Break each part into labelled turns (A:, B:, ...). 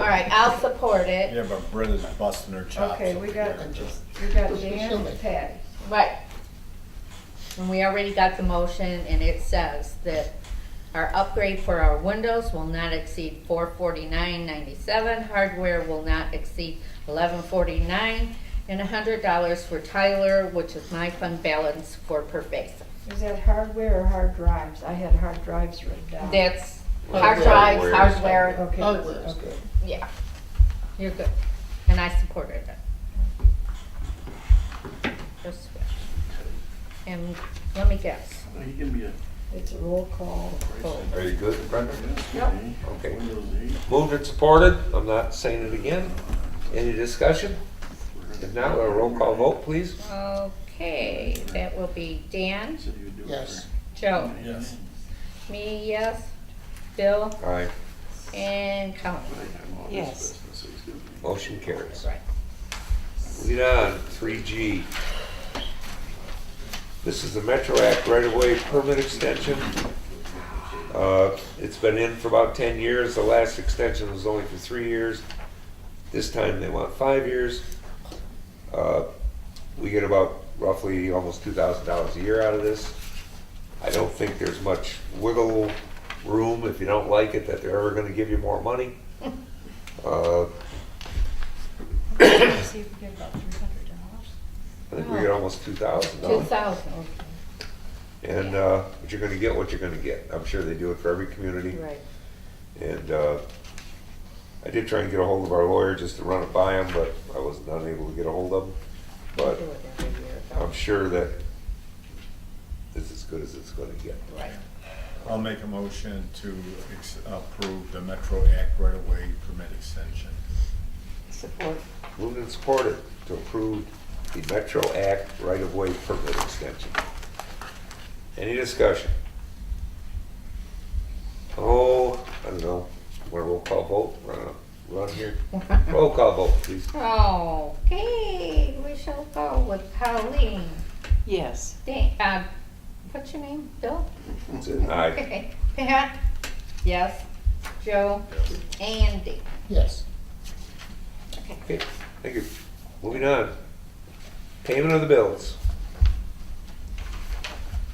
A: right, I'll support it.
B: Yeah, but Britta's busting her chops.
C: Okay, we
B: over
C: got,
B: there. Just-
C: we got Dan and Patty.
A: Right. And we already got the motion and it says that our upgrade for our windows will not exceed four forty-nine ninety-seven. Hardware will not exceed eleven forty-nine and a hundred dollars for Tyler, which is my fund balance for pervasive.
C: Is that hardware or hard drives? I had hard drives written down.
A: That's hard
D: Hardware.
A: drives, hardware,
C: Okay,
D: Hardware.
C: okay.
A: yeah. You're good. And I supported it. Just switch. And let me guess.
E: You give me a.
C: It's a roll call.
A: Vote.
F: Are you good, Brendan?
C: Yep.
F: Okay.
E: Windows eight.
F: Moved and supported, I'm not saying it again. Any discussion? If not, a roll call vote, please.
A: Okay, that will be Dan,
E: Said you would do it
D: Yes.
A: Joe,
B: Yes.
A: me, yes, Bill,
F: Aye.
A: and Colleen.
E: for daytime, all this
G: Yes.
E: business, so it's gonna be-
F: Motion carries.
A: Right.
F: Lead on, three G. This is the Metro Act right-of-way permit extension. Uh, It's been in for about ten years, the last extension was only for three years. This time they want five years. Uh, We get about roughly almost two thousand dollars a year out of this. I don't think there's much wiggle room, if you don't like it, that they're ever gonna give you more money. Uh,
G: See if we get about three hundred dollars.
F: I think we get almost two thousand
A: Two
F: dollars.
A: thousand,
F: And, uh, but you're gonna get what you're gonna get. I'm sure they do it for every community.
A: right.
F: And, uh, I did try and get a hold of our lawyer just to run it by him, but I was not able to get a hold of him.
A: We
F: But
A: do it every year,
F: I'm sure that it's as good as it's gonna get.
A: Right.
B: I'll make a motion to ex- approve the Metro Act right-of-way permit extension.
G: Support.
F: Moved and supported to approve the Metro Act right-of-way permit extension. Any discussion? Oh, I don't know, want a roll call vote, run, run here, roll call vote, please.
A: Okay, we shall go with Colleen.
G: Yes.
A: Dan, uh, what's your name, Bill?
F: That's it. Aye,
A: Okay. Pat? Yes, Joe, Andy.
D: Yes.
F: okay, thank you. Moving on. Payment of the bills.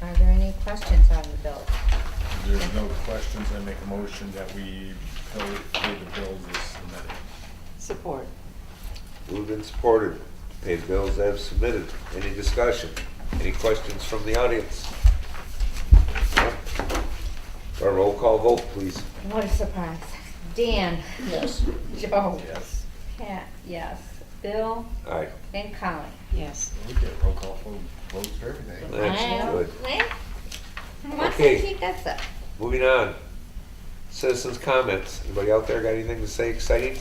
A: Are there any questions on the bill?
B: If there's no questions, I make a motion that we pay pay the bills as submitted.
G: Support.
F: Moved and supported to pay the bills as submitted. Any discussion? Any questions from the audience? A roll call vote, please.
A: What a surprise. Dan,
D: Yes.
A: Joe,
B: Yes.
A: Pat, yes, Bill,
F: Aye.
A: and Colleen.
G: Yes.
B: We get roll call vote- votes for everything.
F: That's good.
A: Once
F: Okay.
A: I keep that up.
F: Moving on. Citizens' comments. Anybody out there got anything to say exciting?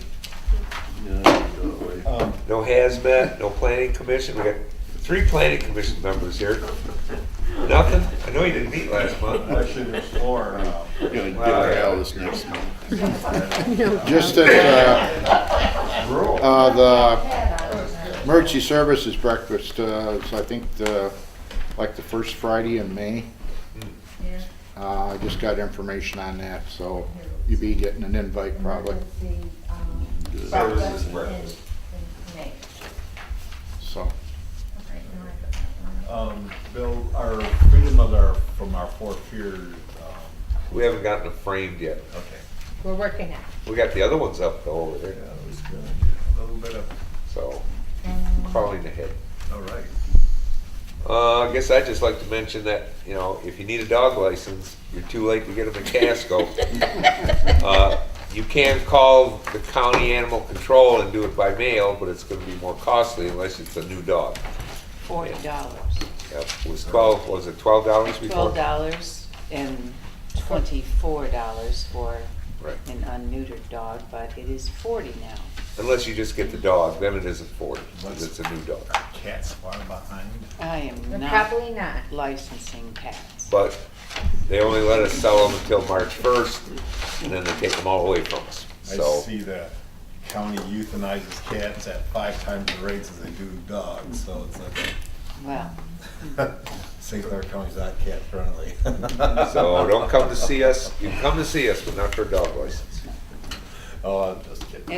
E: Yeah, go away.
B: Um,
F: No hazmat, no planning commission. We got three planning commission members here. Nothing? I know you didn't meet last month.
B: Actually, there's four. uh,
E: Gonna get
F: Wow.
E: her out of this next month.
H: Just that, uh,
B: Rural.
H: uh, the emergency services breakfast, uh, is I think the, like the first Friday in May.
A: Yeah.
H: Uh, I just got information on that, so you'll be getting an invite probably,
A: um,
F: Services breakfast.
H: so.
B: Um, Bill, our freedom of our, from our four fear, um,
F: We haven't gotten it framed yet.
B: okay.
A: We're working on it.
F: We got the other ones up though over
B: Yeah,
F: there,
B: it was good. A little bit of,
F: so
A: Um,
F: crawling ahead.
B: all right.
F: Uh, I guess I'd just like to mention that, you know, if you need a dog license, you're too late to get them in Casco. Uh, You can call the county animal control and do it by mail, but it's gonna be more costly unless it's a new dog.
G: Forty dollars.
F: Yep, It was twelve, was it twelve dollars before?
G: Twelve dollars and twenty-four dollars for
F: Right,
G: an unneutered dog, but it is forty now.
F: unless you just get the dog, then it isn't forty, because it's a new dog.
B: Cat's far behind.
G: I am not
A: Probably not.
G: licensing cats.
F: But they only let us sell them until March first, and then they take them all away from us,
B: I
F: so.
B: see the county euthanizes cats at five times the rates as they do dogs, so it's like,
G: Well,
B: St. Clair County's not cat friendly.
F: So don't come to see us, you can come to see us, but not for a dog license.
B: Oh, I'm just kidding.